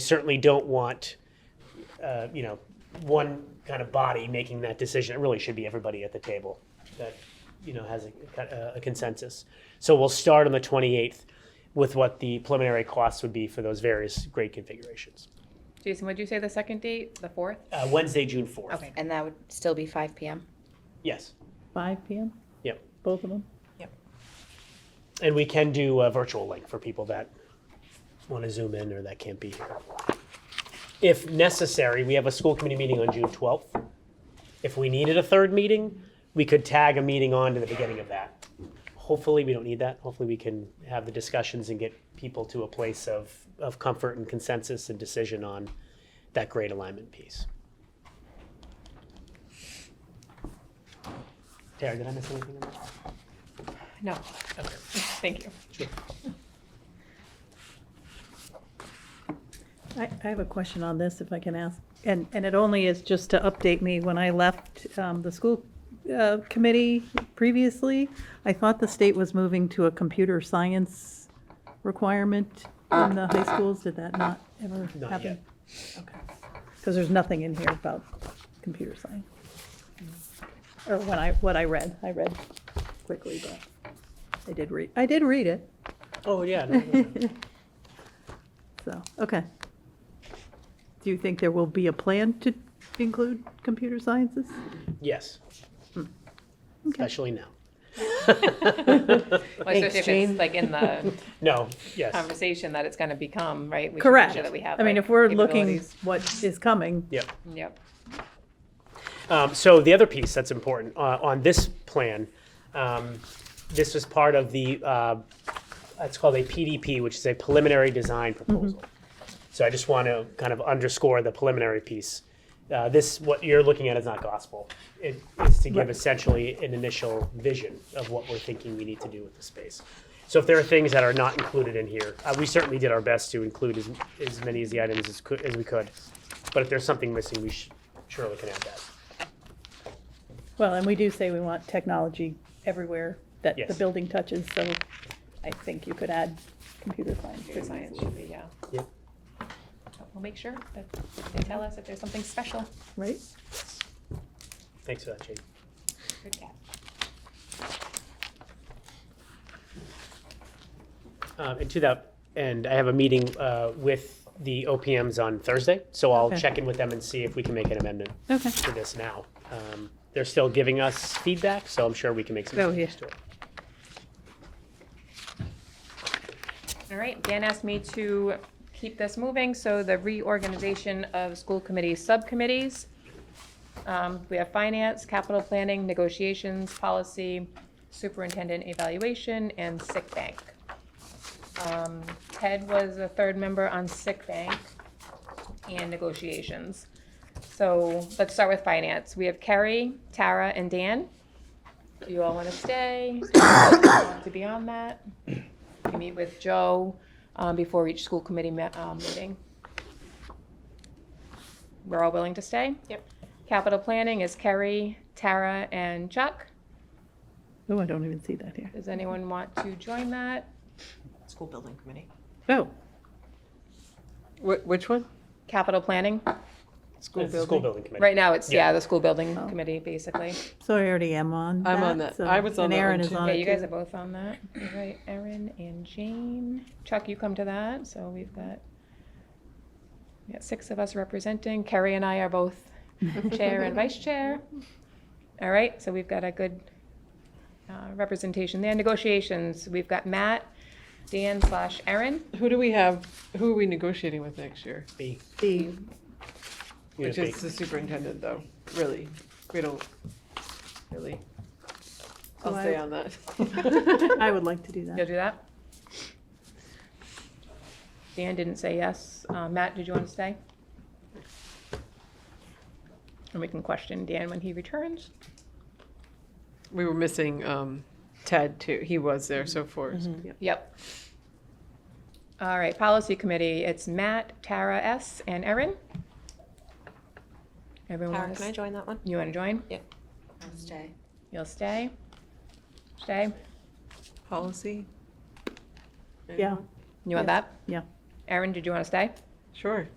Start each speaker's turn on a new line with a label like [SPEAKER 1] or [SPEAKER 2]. [SPEAKER 1] certainly don't want, uh, you know, one kind of body making that decision. It really should be everybody at the table that, you know, has a, a consensus. So we'll start on the 28th with what the preliminary costs would be for those various grade configurations.
[SPEAKER 2] Jason, would you say the second date, the fourth?
[SPEAKER 1] Uh, Wednesday, June 4th.
[SPEAKER 2] Okay.
[SPEAKER 3] And that would still be five PM?
[SPEAKER 1] Yes.
[SPEAKER 4] 5 PM?
[SPEAKER 1] Yep.
[SPEAKER 4] Both of them?
[SPEAKER 1] And we can do a virtual link for people that want to zoom in or that can't be here. If necessary, we have a school committee meeting on June 12th. If we needed a third meeting, we could tag a meeting on to the beginning of that. Hopefully, we don't need that. Hopefully, we can have the discussions and get people to a place of, of comfort and consensus and decision on that grade alignment piece. Tara, did I miss anything? in that?
[SPEAKER 2] No. Thank you.
[SPEAKER 4] I, I have a question on this, if I can ask, and, and it only is just to update me, when I left um, the school uh, committee previously, I thought the state was moving to a computer science requirement in the high schools, did that not ever happen?
[SPEAKER 1] Not yet.
[SPEAKER 4] Okay, because there's nothing in here about computer science. Or when I, what I read, I read quickly, but I did read, I did read it,
[SPEAKER 1] Oh, yeah. no, no, no.
[SPEAKER 4] so, okay. Do you think there will be a plan to include computer sciences?
[SPEAKER 1] Yes. Especially now.
[SPEAKER 2] Well, especially if it's like in the
[SPEAKER 1] No, yes,
[SPEAKER 2] conversation that it's gonna become, right? We should make
[SPEAKER 4] Correct.
[SPEAKER 2] Sure that we have.
[SPEAKER 4] I mean,
[SPEAKER 2] like,
[SPEAKER 4] if we're looking
[SPEAKER 2] capabilities.
[SPEAKER 4] what is coming,
[SPEAKER 1] yep.
[SPEAKER 2] Yep.
[SPEAKER 1] Um, so the other piece that's important uh, on this plan, um, this was part of the, uh, it's called a PDP, which is a preliminary design proposal. So I just want to kind of underscore the preliminary piece. Uh, this, what you're looking at is not gospel. It is to give
[SPEAKER 4] Right.
[SPEAKER 1] essentially an initial vision of what we're thinking we need to do with the space. So if there are things that are not included in here, uh, we certainly did our best to include as, as many of the items as, cou- as we could. But if there's something missing, we sh- surely can add that.
[SPEAKER 4] well, and we do say we want technology everywhere that the
[SPEAKER 1] Yes.
[SPEAKER 4] building touches, so I think you could add computer
[SPEAKER 2] Computer
[SPEAKER 4] science.
[SPEAKER 2] science should be, yeah.
[SPEAKER 1] Yep.
[SPEAKER 2] We'll make sure that they tell us if there's something special.
[SPEAKER 4] Right?
[SPEAKER 1] Thanks for that, Jake.
[SPEAKER 2] Good catch.
[SPEAKER 1] Um, and to that end, I have a meeting uh, with the OPMs on Thursday, so I'll
[SPEAKER 4] Okay.
[SPEAKER 1] check in with them and see if we can make an amendment
[SPEAKER 4] Okay.
[SPEAKER 1] to this now. Um, they're still giving us feedback, so I'm sure we can make some
[SPEAKER 4] Oh, yeah.
[SPEAKER 1] changes to it.
[SPEAKER 2] All right, Dan asked me to keep this moving, so the reorganization of school committee subcommittees. Um, We have finance, capital planning, negotiations, policy, superintendent evaluation, and sick bank. Um, Ted was the third member on sick bank and negotiations. So let's start with finance. We have Carrie, Tara, and Dan. Do you all want to stay? To be on that? We meet with Joe um, before each school committee me- um, meeting. We're all willing to stay? Yep. Capital planning is Kerry, Tara, and Chuck.
[SPEAKER 4] Oh, I don't even see that here.
[SPEAKER 2] Does anyone want to join that?
[SPEAKER 5] School building committee.
[SPEAKER 4] Oh,
[SPEAKER 5] Wh- which one?
[SPEAKER 2] Capital planning?
[SPEAKER 5] School
[SPEAKER 1] It's the School building committee.
[SPEAKER 2] Right now, it's, yeah, the school building
[SPEAKER 4] Oh.
[SPEAKER 2] committee, basically.
[SPEAKER 4] so I already am on that.
[SPEAKER 5] I'm on that.
[SPEAKER 4] so-
[SPEAKER 5] I was on
[SPEAKER 4] And
[SPEAKER 5] that one
[SPEAKER 4] Aaron is
[SPEAKER 5] too.
[SPEAKER 4] on
[SPEAKER 2] Yeah,
[SPEAKER 4] it
[SPEAKER 2] you guys
[SPEAKER 4] too.
[SPEAKER 2] are both on that. All Right, Erin and Jane. Chuck, you come to that, so we've got, we got six of us representing. Carrie and I are both chair and vice chair. All right, so we've got a good uh, representation there. Negotiations, we've got Matt, Dan slash Erin.
[SPEAKER 5] Who do we have, who are we negotiating with next year?
[SPEAKER 1] B.
[SPEAKER 4] B.
[SPEAKER 5] Which
[SPEAKER 1] Unit B.
[SPEAKER 5] is the superintendent, though, really. We don't, really. I'll
[SPEAKER 4] So I-
[SPEAKER 5] stay on that.
[SPEAKER 4] I would like to do
[SPEAKER 2] You'll
[SPEAKER 4] that.
[SPEAKER 2] do that? Dan didn't say yes. Uh, Matt, did you want to stay? And we can question Dan when he returns.
[SPEAKER 5] We were missing um, Ted, too. He was there, so for, yeah.
[SPEAKER 2] Yep. All right, policy committee, it's Matt, Tara S., and Erin. Everyone
[SPEAKER 6] Tara,
[SPEAKER 2] is-
[SPEAKER 6] can I join that one?
[SPEAKER 2] You want to join?
[SPEAKER 3] I'll stay.
[SPEAKER 2] You'll stay? Stay?
[SPEAKER 5] policy.
[SPEAKER 4] Yeah,
[SPEAKER 2] You want that?
[SPEAKER 4] yeah.
[SPEAKER 2] Erin, did you want to stay?
[SPEAKER 5] Sure.